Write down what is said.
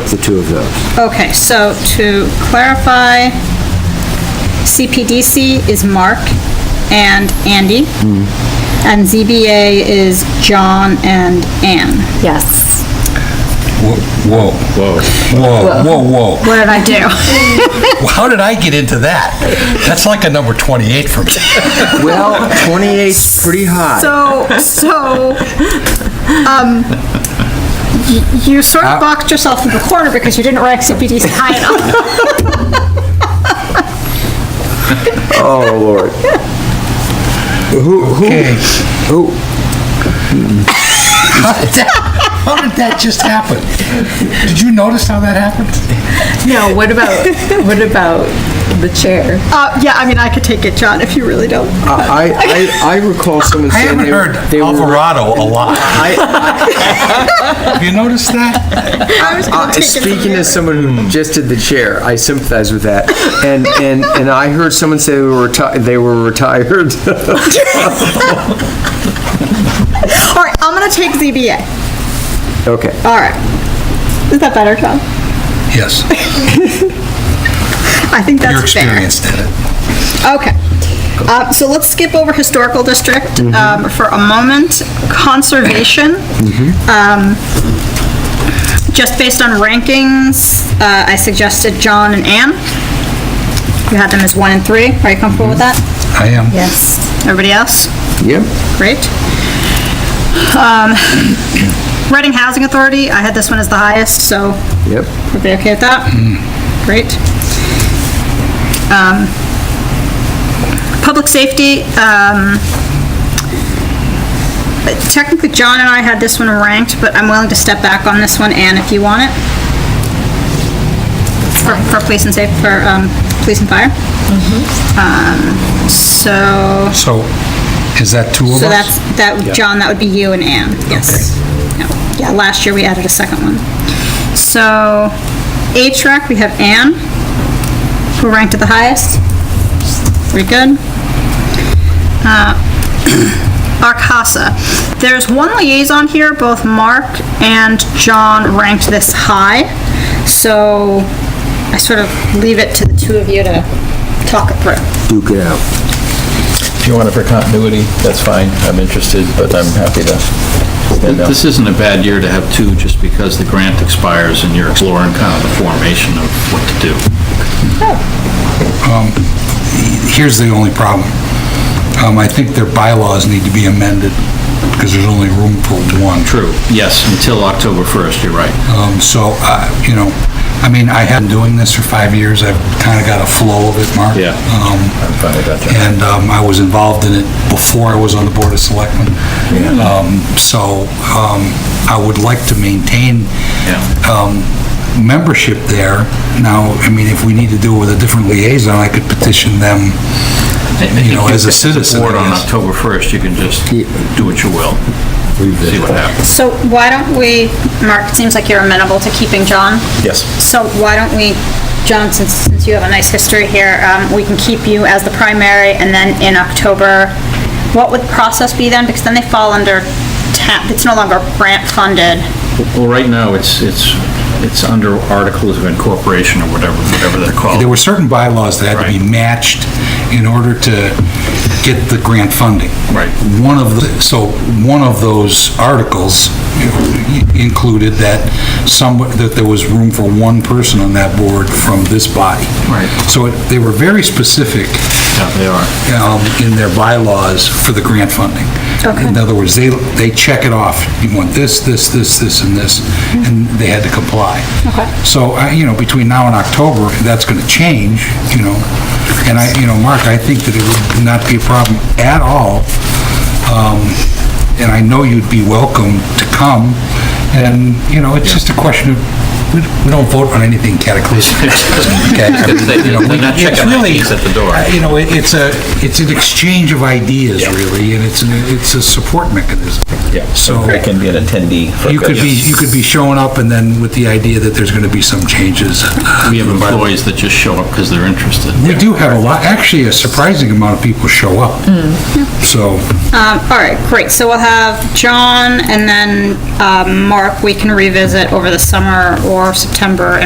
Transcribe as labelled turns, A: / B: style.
A: flip the two of those.
B: Okay, so to clarify, CPDC is Mark and Andy,
A: Hmm.
B: and ZBA is John and Ann.
C: Yes.
D: Whoa. Whoa. Whoa, whoa, whoa.
B: What did I do?
D: How did I get into that? That's like a number 28 for me.
A: Well, 28's pretty high.
B: So, so, um, y- you sort of boxed yourself in the corner because you didn't rank CPDC high enough.
A: Oh, Lord. Who, who,
D: Okay.
A: who,
D: How did that- how did that just happen? Did you notice how that happened?
C: No, what about, what about the chair?
B: Uh, yeah, I mean, I could take it, John, if you really don't.
A: I, I, I recall someone
D: I
A: saying
D: haven't
A: they were.
D: heard
A: they were-
D: Alvarado a lot.
A: I,
D: Have you noticed that?
B: I was
A: I-
B: gonna take it from
A: Uh, speaking
B: there.
A: as someone who just did the chair, I sympathize with that. And, and, and I heard someone say they were retired, they were retired.
B: All right, I'm gonna take ZBA.
A: Okay.
B: All right. Is that better, John?
D: Yes,
B: I think
D: your
B: that's fair.
D: experience did it.
B: Okay. Uh, So let's skip over Historical District um, for a moment. Conservation. Um, Just based on rankings, uh, I suggested John and Ann. You had them as one and three. Are you comfortable with that?
D: I am.
B: Yes. Everybody else?
A: Yep.
B: Great. Um, Reading Housing Authority, I had this one as the highest, so
A: Yep.
B: Everybody okay with that? Great. Um, Public safety, um, technically John and I had this one ranked, but I'm willing to step back on this one, Anne, if you want it. For, for police and safe, for, um, police and fire. Um, So,
D: So is that two of us?
B: so that's, that, would- John, that would be you and Anne, yes. No. Yeah, last year we added a second one. So, HRAC, we have Anne, who ranked at the highest. Pretty good. Uh, Arcasa, there's one liaison here, both Mark and John ranked this high, so I sort of leave it to the two of you to talk it through.
A: Duke it out.
E: If you want it for continuity, that's fine. I'm interested, but I'm happy to stand down.
F: This isn't a bad year to have two, just because the grant expires and you're exploring kind of the formation of what to do.
D: Here's the only problem. Um, I think their bylaws need to be amended because there's only room for one.
F: True, yes, until October 1st, you're right.
D: Um, So, uh, you know, I mean, I have been doing this for five years, I've kind of got a flow of it, Mark.
F: Yeah.
D: Um,
E: I'm fine with that.
D: And um, I was involved in it before I was on the Board of Selectmen. Um, So um, I would like to maintain
F: Yeah.
D: um, membership there. Now, I mean, if we need to do it with a different liaison, I could petition them, you know, as a citizen.
F: Board
D: I
F: on
D: guess.
F: October 1st, you can just do what you will, see what happens.
B: So why don't we, Mark, it seems like you're amenable to keeping John.
E: Yes.
B: So why don't we, John, since, since you have a nice history here, um, we can keep you as the primary and then in October, what would the process be then? Because then they fall under TAP, it's no longer grant funded.
F: Well, right now, it's, it's, it's under Articles of Incorporation or whatever, whatever they're called.
D: There were certain bylaws that had to be
F: Oh. Right.
D: matched in order to get the grant funding.
F: Right.
D: One of the, so one of those articles included that some, that there was room for one person on that board from this body.
F: Right.
D: So it- they were very specific
F: Yeah, They are.
D: um, in their bylaws for the grant funding.
B: Okay.
D: In other words, they, they check it off. You want this, this, this, this, and this, and they had to comply.
B: Mm-hmm. Okay.
D: So, I- you know, between now and October, that's going to change, you know. And I, you know, Mark, I think that it would not be a problem at all. Um, And I know you'd be welcome to come. And, you know, it's just a question of, we we don't vote on anything cataclysmic. Okay? You know, we-
F: They're not
D: it's
F: checking
D: really-
F: IDs at the door.
D: you know, it- it's a, it's an exchange of ideas, really, and it's, an it's a support mechanism.
E: Yeah, so
D: So-
E: I can be an attendee. for
D: You could be,
E: this.
D: you could be showing up and then with the idea that there's going to be some changes.
F: We have employees that just show up because they're interested.
D: We do have a lot, actually, a surprising amount of people show up. So,
B: Um, all right, great, so we'll have John and then, um, Mark, we can revisit over the summer or for September